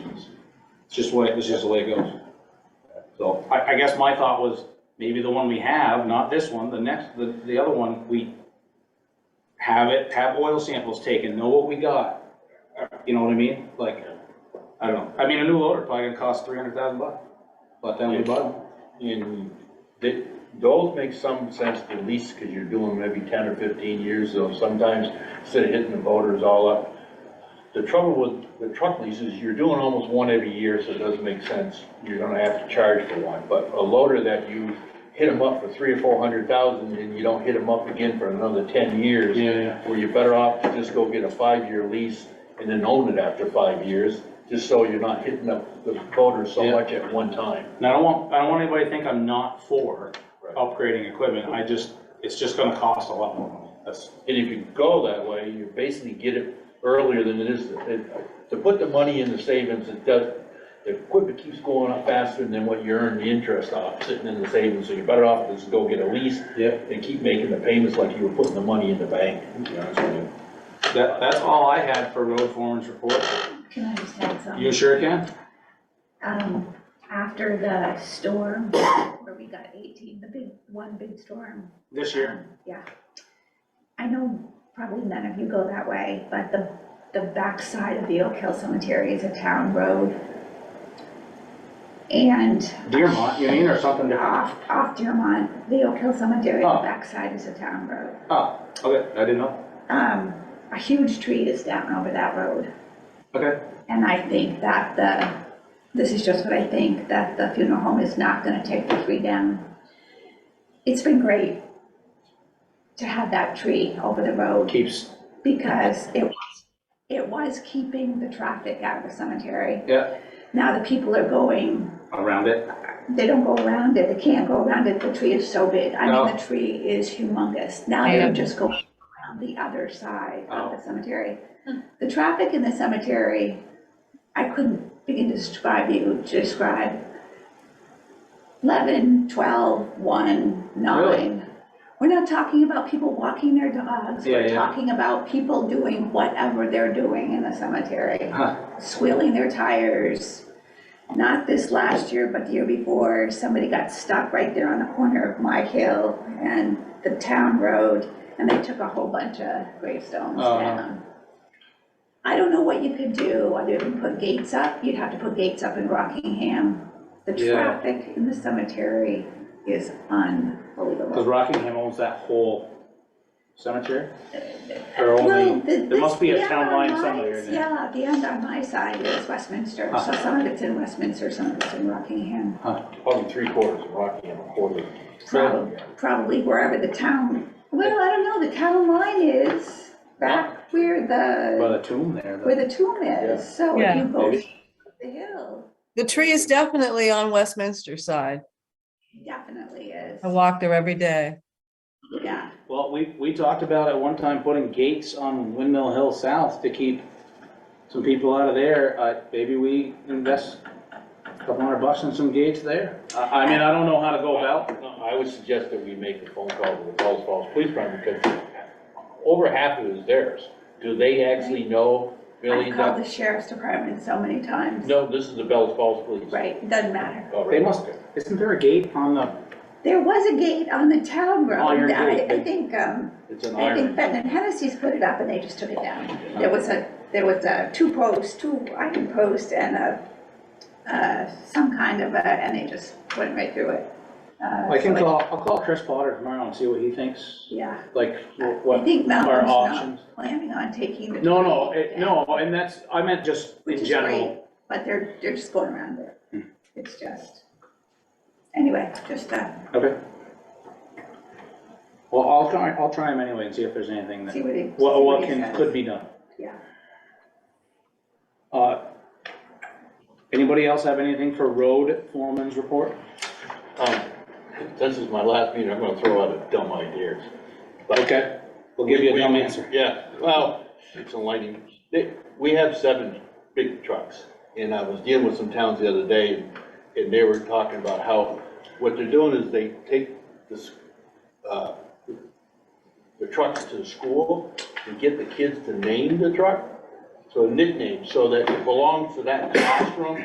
It's just what, it's just the way it goes. So I, I guess my thought was, maybe the one we have, not this one, the next, the, the other one, we have it, have oil samples taken, know what we got. Uh, You know what I mean? Like, I don't know. I mean, a new loader probably gonna cost three hundred thousand bucks. But then we buy them. And th- those make some sense to lease, because you're doing maybe ten or fifteen years, so sometimes, instead of hitting the voters all up. The trouble with the truck leases, you're doing almost one every year, so it doesn't make sense, you're gonna have to charge for one, but a loader that you hit them up for three or four hundred thousand, and you don't hit them up again for another ten years. Yeah, yeah. Where you're better off to just go get a five-year lease and then own it after five years, just so you're not hitting up the voters so Yeah. much at one time. And I don't want, I don't want anybody to think I'm not for Right. upgrading equipment. I just, it's just gonna cost a lot more money. That's, And if you go that way, you basically get it earlier than it is, it- to put the money in the savings, it does, the equipment keeps going up faster than what you earn the interest off, sitting in the savings, so you're better off to just go get a lease. Yep. And keep making the payments like you were putting the money in the bank. that, that's all I had for road foreman's report. Can I just add something? You sure can? Um, after the storm, where we got eighteen, the big, one big storm. This year? um, Yeah. I know probably none of you go that way, but the, the backside of the Oak Hill Cemetery is a town road. And Deermont, you mean, or something different? off, off Dearmont, the Oak Hill Cemetery, the Oh. backside is a town road. Oh, okay, I didn't know. Um, a huge tree is down over that road. Okay, And I think that the, this is just what I think, that the funeral home is not gonna take the tree down. It's been great to have that tree over the road keeps, because it was, it was keeping the traffic out of the cemetery. yeah, Now the people are going, around it. they don't go around it, they can't go around it, the tree is so big. I No. mean, the tree is humongous. Now they're Yeah. just going around the other side of Oh. the cemetery. The traffic in the cemetery, I couldn't begin to describe you, to describe. 11, 12, 1, 9. We're not talking about people walking their dogs. Yeah, We're yeah. talking about people doing whatever they're doing in the cemetery Huh, squealing their tires. Not this last year, but the year before, somebody got stuck right there on the corner of my hill and the town road, and they took a whole bunch of gravestones Uh-huh. down. I don't know what you could do, other than put gates up, you'd have to put gates up in Rockingham. The Yeah. traffic in the cemetery is Cause unbelievable. Rockingham owns that whole cemetery? Or Well, only, the- there must this- be a the end town on line my- somewhere in there. Yeah, the end on my side is Westminster, so Uh-huh. some of it's in Westminster, some of it's in Rockingham. Probably three quarters of Rocky and a quarter. Probably, probably wherever the town, well, I don't know, the town line is back where by the, the tomb there, where the- the tomb is, so if Yeah. you go Maybe. up the hill, The tree is definitely on Westminster side. it definitely is. I walk there every day. Yeah, Well, we, we talked about at one time putting gates on Windmill Hill South to keep some people out of there. Uh, maybe we invest a couple hundred bucks in some gates there. I, I mean, I don't know how to go about. No, I would suggest that we make a phone call to the Falls Falls Police Department, because over half of it is theirs. Do they actually know, Billy? I've called that- the sheriff's department so many times, No, this is the Bells Falls Police. right, it doesn't matter. Oh, They right, must, okay. isn't there a gate on the, There was a gate on the town Oh, your road, I, gate. I think, um, It's an I think iron. Benton Hennessy's put it up and they just took it down. There was a, there was a two post, two iron post and a, uh, some kind of a, and they just went right through it. Uh, I can so call, I'll call Chris Potter tomorrow and see what he thinks. Yeah, like wh- I what think our Malcolm's options? not planning on taking the. No, no, tree it- down, no, and that's, I meant just which in is great, general. Hmm. But they're, they're just going around it. It's just, anyway, just, uh, Okay. Well, I'll try, I'll try him anyway and see if there's anything that, see what he. what, see what he can, says. could be done. Yeah. Uh, Anybody else have anything for road foreman's report? Um, This is my last meeting, I'm gonna throw out a dumb idea. But- Okay, we'll give you a dumb answer. Yeah, well, it's enlightening. They- We have seven big trucks, and I was dealing with some towns the other day, and they were talking about how, what they're doing is they take this, uh, the trucks to the school and get the kids to name the truck, so nickname, so that it belongs to that classroom,